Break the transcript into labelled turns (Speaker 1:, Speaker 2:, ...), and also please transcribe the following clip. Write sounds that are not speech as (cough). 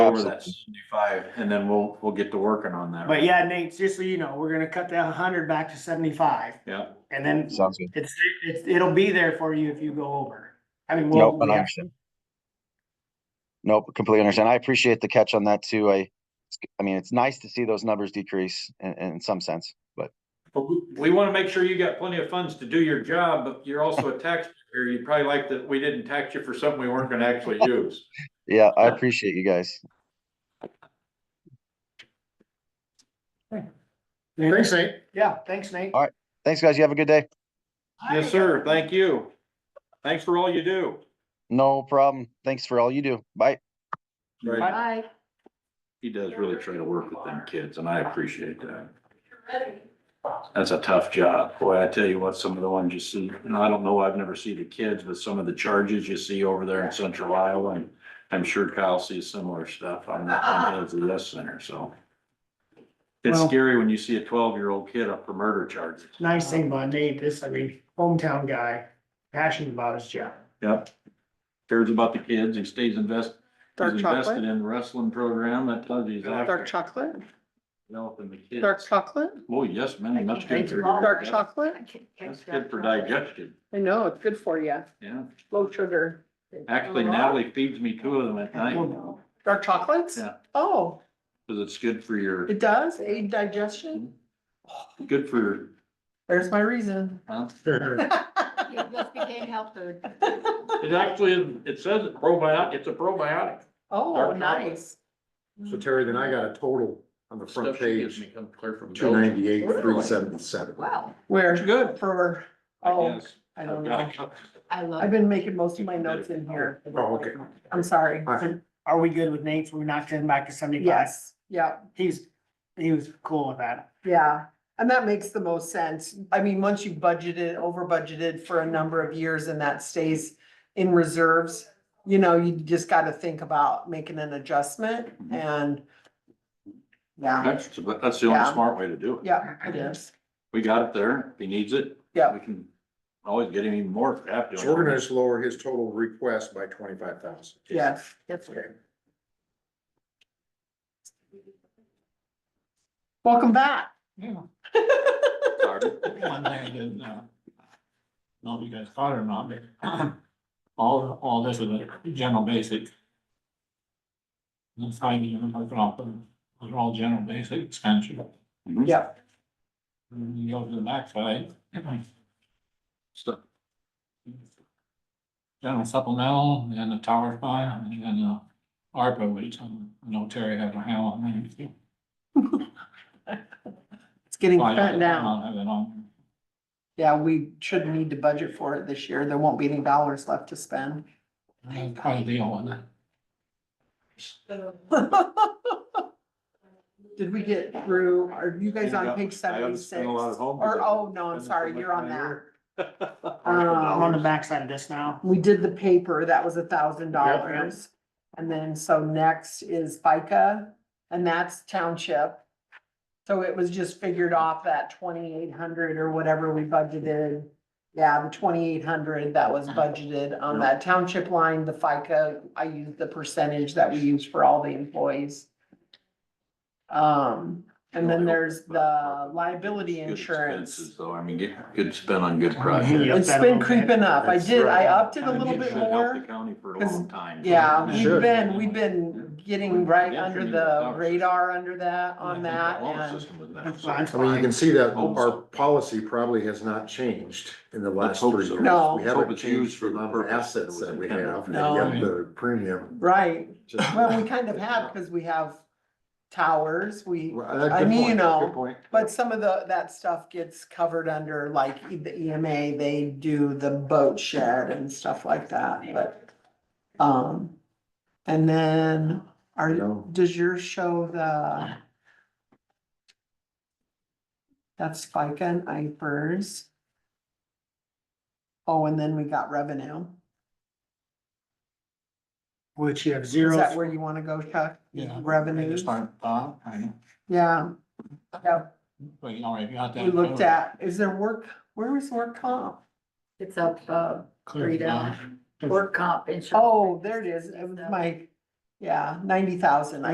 Speaker 1: over the
Speaker 2: process.
Speaker 1: seventy-five, and then we'll, we'll get to working on that.
Speaker 3: But yeah, Nate, just so you know, we're gonna cut that hundred back to seventy-five
Speaker 1: Yeah,
Speaker 3: and then
Speaker 2: Sounds good.
Speaker 3: it's, it's, it'll be there for you if you go over. I mean, we'll,
Speaker 2: Nope,
Speaker 3: we
Speaker 2: and I
Speaker 3: have-
Speaker 2: understand. Nope, completely understand. I appreciate the catch on that too. I, I mean, it's nice to see those numbers decrease in, in some sense, but
Speaker 1: but we, we wanna make sure you got plenty of funds to do your job, but you're (laughs) also a taxpayer. You'd probably like that we didn't tax you for something we weren't gonna (laughs) actually use.
Speaker 2: yeah, I appreciate you guys.
Speaker 4: Thanks, Nate.
Speaker 3: yeah, thanks, Nate.
Speaker 2: All Thanks, guys. You have a good day.
Speaker 1: Yes, sir. Thank you. Thanks for all you do.
Speaker 2: No problem. Thanks for all you do. Bye.
Speaker 1: Right.
Speaker 5: Bye.
Speaker 1: He does really try to work with them kids, and I appreciate that. That's a tough job. Boy, I tell you what, some of the ones you see, and I don't know, I've never seen the kids, but some of the charges you see over there in central Iowa, and I'm sure Kyle sees similar stuff on the, on the death center, so. It's
Speaker 3: Well-
Speaker 1: scary when you see a twelve-year-old kid up for murder charges.
Speaker 3: Nice thing about Nate is, I mean, hometown guy, passionate about his job.
Speaker 1: Yep. Cares about the kids. He stays invested, he's
Speaker 4: Dark
Speaker 1: invested
Speaker 4: chocolate,
Speaker 1: in wrestling program. That tells you he's
Speaker 4: dark
Speaker 1: after
Speaker 4: chocolate,
Speaker 1: developing the kids.
Speaker 4: dark chocolate,
Speaker 1: Oh, yes, man, that's good. for your-
Speaker 4: dark chocolate.
Speaker 1: That's good for digestion,
Speaker 4: I know, it's good for you.
Speaker 1: yeah.
Speaker 4: Low sugar.
Speaker 1: Actually, Natalie feeds me two of them at night,
Speaker 3: Well,
Speaker 4: Dark chocolates?
Speaker 1: Yeah.
Speaker 4: Oh,
Speaker 1: cause it's good for your,
Speaker 4: it does aid
Speaker 1: Mm-hmm.
Speaker 4: digestion?
Speaker 1: Oh, good for, your
Speaker 4: There's my reason.
Speaker 1: (laughs) huh?
Speaker 5: It just became health food.
Speaker 1: It actually, is- it says it probiotic, it's a probiotic.
Speaker 4: Oh,
Speaker 1: chocolate.
Speaker 4: nice.
Speaker 6: So Terry, then I got a total on the front
Speaker 1: Stuff she gives
Speaker 6: page,
Speaker 1: me comes clear from
Speaker 6: two
Speaker 1: Belgium.
Speaker 6: ninety-eight, three
Speaker 4: Really?
Speaker 6: seventy-seven.
Speaker 5: Wow,
Speaker 4: Where?
Speaker 1: It's good.
Speaker 4: For,
Speaker 1: I
Speaker 4: oh,
Speaker 1: guess.
Speaker 4: I don't
Speaker 1: I've got a
Speaker 4: know.
Speaker 1: couple.
Speaker 5: I love.
Speaker 4: I've been making most of my notes in here.
Speaker 6: Oh, okay.
Speaker 4: I'm sorry.
Speaker 3: Are we good with Nate? So we knocked him back to seventy-five?
Speaker 4: Yes, yeah,
Speaker 3: He's, he was cool with that.
Speaker 4: yeah. And that makes the most sense. I mean, once you budgeted, over budgeted for a number of years and that stays in reserves, you know, you just gotta think about making an adjustment and yeah,
Speaker 1: That's, but that's the only
Speaker 4: Yeah.
Speaker 1: smart way to do it.
Speaker 4: yeah, it is.
Speaker 1: We got it there, if he needs it.
Speaker 4: Yeah.
Speaker 1: We can always get him even more if we have to.
Speaker 6: So we're gonna just lower his total request by twenty-five thousand.
Speaker 4: Yes.
Speaker 6: Okay.
Speaker 4: Welcome back.
Speaker 1: Sorry.
Speaker 7: One thing I didn't, uh, know if you guys caught it or not, but all, all this is a general basic. It's how you, I'm looking off, they're all general basic expenses.
Speaker 1: Mhm. (laughs)
Speaker 4: Yeah.
Speaker 7: And you go to the backside.
Speaker 1: Stuff.
Speaker 7: General supplemental and the tower fund and then the ARPA, which um, I know Terry had a handle on. that.
Speaker 4: It's getting
Speaker 7: Well, I don't-
Speaker 4: spent now.
Speaker 7: I don't have it on.
Speaker 4: Yeah, we should need to budget for it this year. There won't be any dollars left to spend.
Speaker 7: I have quite a deal on that.
Speaker 4: Did we get through, are you guys
Speaker 1: Yeah,
Speaker 4: on page
Speaker 1: I haven't
Speaker 4: seventy-six?
Speaker 1: spent a lot of homework.
Speaker 4: Or, oh, no, I'm
Speaker 1: Spent
Speaker 4: sorry,
Speaker 1: so
Speaker 4: you're on
Speaker 1: much
Speaker 4: that.
Speaker 3: I'm on the
Speaker 4: Um,
Speaker 3: backside of this now.
Speaker 4: we did the paper, that was a thousand dollars. And then, so next is FICA, and that's township. So it was just figured off that twenty-eight hundred or whatever we budgeted. Yeah, the twenty-eight hundred that was budgeted on that township line, the FICA, I used the percentage that we use for all the employees. Um, and then there's the liability
Speaker 1: Good
Speaker 4: insurance.
Speaker 1: expenses, Though, I mean, get- good spend on good projects.
Speaker 3: Yeah.
Speaker 4: It's been creeping up. I
Speaker 6: That's
Speaker 4: did, I
Speaker 6: right.
Speaker 4: upped it a
Speaker 1: I mean,
Speaker 4: little
Speaker 1: it
Speaker 4: bit
Speaker 1: should help
Speaker 4: more.
Speaker 1: the County for a
Speaker 4: 'cause-
Speaker 1: long time.
Speaker 4: Yeah,
Speaker 6: It
Speaker 4: we've
Speaker 6: should.
Speaker 4: been, we've been getting right under the radar under that, on that, and
Speaker 3: That's
Speaker 1: and.
Speaker 3: fine.
Speaker 6: I mean, you can see that our policy probably has not changed in the
Speaker 1: Let's
Speaker 6: last
Speaker 1: hope
Speaker 6: three
Speaker 1: so.
Speaker 6: years.
Speaker 4: No.
Speaker 6: We
Speaker 1: Let's hope
Speaker 6: haven't
Speaker 1: it's used
Speaker 6: changed
Speaker 1: for
Speaker 6: the
Speaker 1: the
Speaker 6: amount of
Speaker 1: purpose that
Speaker 6: assets
Speaker 1: was
Speaker 6: that we
Speaker 1: intended.
Speaker 6: have,
Speaker 4: No.
Speaker 6: and yet the premium.
Speaker 4: right.
Speaker 6: just-
Speaker 4: Well, we kind of have, because we have towers, we,
Speaker 6: Well, uh,
Speaker 4: I
Speaker 6: good
Speaker 4: mean, you
Speaker 6: point,
Speaker 4: know,
Speaker 6: good point.
Speaker 4: but some of the, that stuff gets covered under, like, E- the EMA, they do the boat shed and stuff like that, but, um, and then,
Speaker 6: You
Speaker 4: are,
Speaker 6: know,
Speaker 4: does yours show the that's FICA and IFRS? Oh, and then we got revenue.
Speaker 3: Which you have
Speaker 4: Is that
Speaker 3: zero,
Speaker 4: where you wanna go, Chuck?
Speaker 7: Yeah.
Speaker 4: Revenues,
Speaker 7: Start, uh, I,
Speaker 4: yeah. Yeah,
Speaker 7: well, you already got that.
Speaker 4: we looked at, is there work, where was work comp?
Speaker 5: It's up, uh,
Speaker 7: Clear.
Speaker 5: Rita. work comp insurance.
Speaker 4: Oh, there it is, it was my, yeah, ninety thousand,